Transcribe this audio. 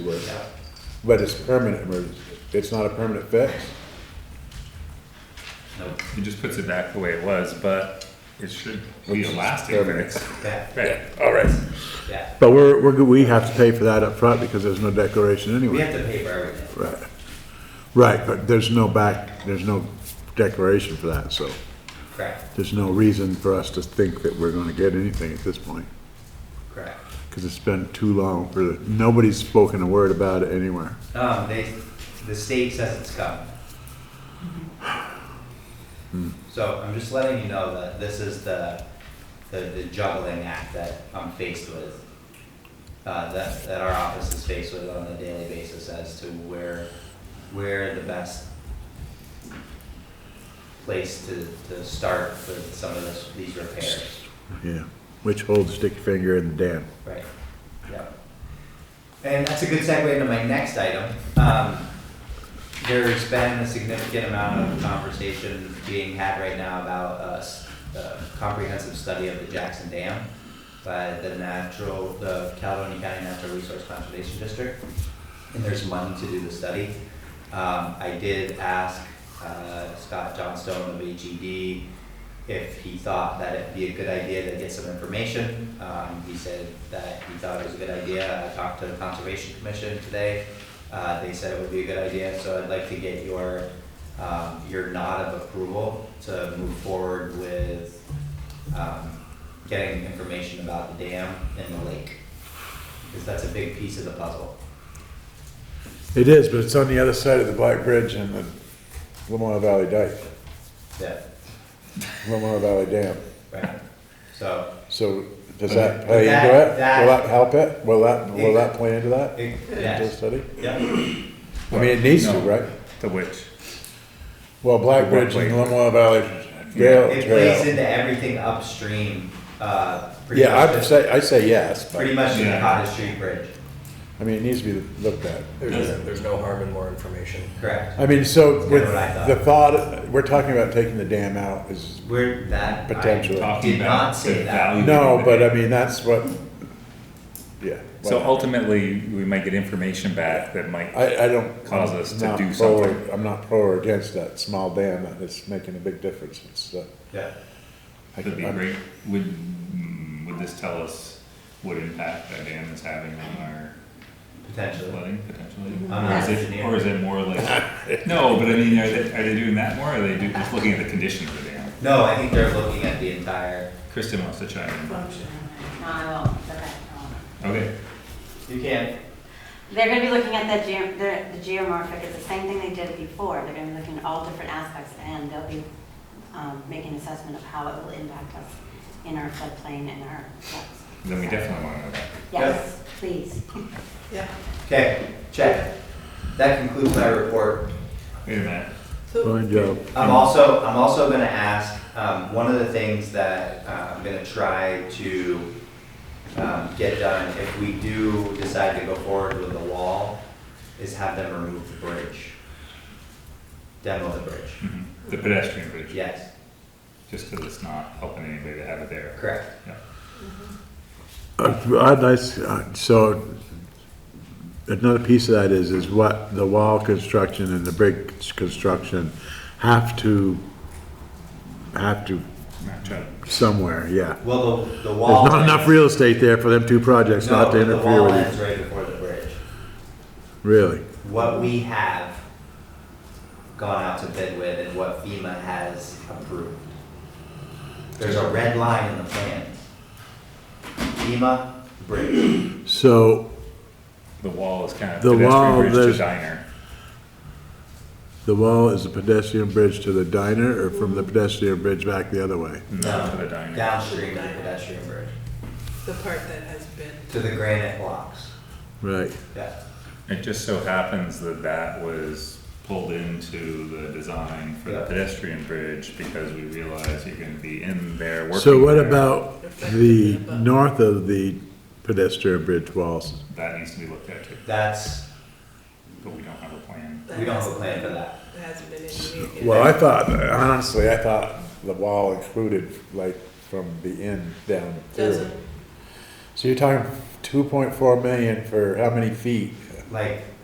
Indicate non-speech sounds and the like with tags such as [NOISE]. with, Yeah. but it's permanent emergency, it's not a permanent fix? No, It just puts it back the way it was, but it should be a lasting fix. that, Right, all right. that. But we're, we're, we have to pay for that up front because there's no declaration We anyway. have to pay for everything. Right, right, but there's no back, there's no declaration for that, so Correct, there's no reason for us to think that we're gonna get anything at this point. correct. Cause it's been too long for, the- nobody's spoken a word about it anywhere. Um, they, the state says it's coming. So I'm just letting you know that this is the, the the juggling act that I'm faced with. Uh, that, that our office is faced with on a daily basis as to where, where the best place to, to start with some of this, these repairs, Yeah, which holds sticky finger in the dam. right? Yep. And that's a good segue into my next item. Um, there's been a significant amount of conversation being had right now about a s- a comprehensive study of the Jackson Dam by the natural, the Caledonia County Natural Resource Conservation District. And there's money to do the study. Um, I did ask, uh, Scott Johnstone of AGD if he thought that it'd be a good idea to get some information. Um, he said that he thought it was a good idea. I talked to the Conservation Commission today. Uh, they said it would be a good idea, so I'd like to get your, um, your nod of approval to move forward with, um, getting information about the dam and the lake. Because that's a big piece of the puzzle. It is, but it's on the other side of the Black Bridge and the Lamar Valley Dike, Yeah, Lamar Valley Dam. right. So So does that play into That- it? that- Will that help it? Will that, will that play into that? It- Into the Yes. study? Yeah. I mean, it needs to, No. right? The which, Well, Black What Bridge and way? Lamoille Valley Trail. It plays Trail. into everything upstream, uh, pretty Yeah, much, I'd to- say, I say yes, pretty but, much to the Yeah. Cottage Street Bridge, I mean, it needs to be looked at. There's, there's no harm in more information. correct? I mean, so with what I thought. the thought, we're talking about taking the dam out is, Where that. I Potentially. Talking Did about not say the that. value. no, but uh, I mean, that's what, yeah. so well, ultimately, we might get information back that might, I, I don't. Cause us to I'm not do pro or- something. I'm not pro or against that small dam, it's making a big difference, it's, uh. Yeah, I that'd be can- great. Would, mm, would this tell us what impact that dam is having on our potentially. flooding potentially? I'm Or not is an it, engineer. or is it [LAUGHS] more like, no, but I mean, are they, are they doing that more, or are they do- just looking at the condition of the dam? No, I think they're looking at the entire, Kristen wants to chime function. Uh, Not at all, but I don't. in, okay, you can't, They're gonna be looking at that geo, the, the geomorphic, it's the same thing they did before, they're gonna be looking at all different aspects, and they'll be, um, making assessment of how it will impact us in our floodplain and our floods. then we definitely wanna know that. Yes, please. Yeah, okay, check. That concludes my report. Wait a minute, so, Fine job. I'm also, I'm also gonna ask, um, one of the things that uh, I'm gonna try to, um, get done, if we do decide to go forward with the wall, is have them remove the bridge. Demo the bridge, Mhm. the pedestrian bridge. yes, Just 'cause it's not helping anybody to have it there. correct. Yeah. Uh, I'd like, uh, so, another piece of that is, is what the wall construction and the brick construction have to, have to Match up. somewhere, yeah. Well, the, the There's wall. not enough real estate there for them two projects No, not to but the interfere wall with ends right before the bridge. you, really. What we have gone out to bid with and what FEMA has approved. There's a red line in the plans. FEMA, [COUGHS] bridge. So, The wall is kind of The pedestrian wall, bridge there's- to diner. the wall is a pedestrian bridge to the diner, or from the pedestrian bridge back the other way? No, to the diner. Downstream of the pedestrian bridge, the part that has been, to the granite blocks. Right. Yeah, It just so happens that that was pulled into the design for the Yeah. pedestrian bridge because we realized you're gonna be in there working. So what there. about the north of the pedestrian bridge walls? That needs to be looked at too, that's, but we don't have a plan. that we don't have a hasn't plan for that. that hasn't been in. Well, I thought, honestly, I thought the wall included, like, from the end down through. Doesn't, So you're talking two point four million for how many feet? like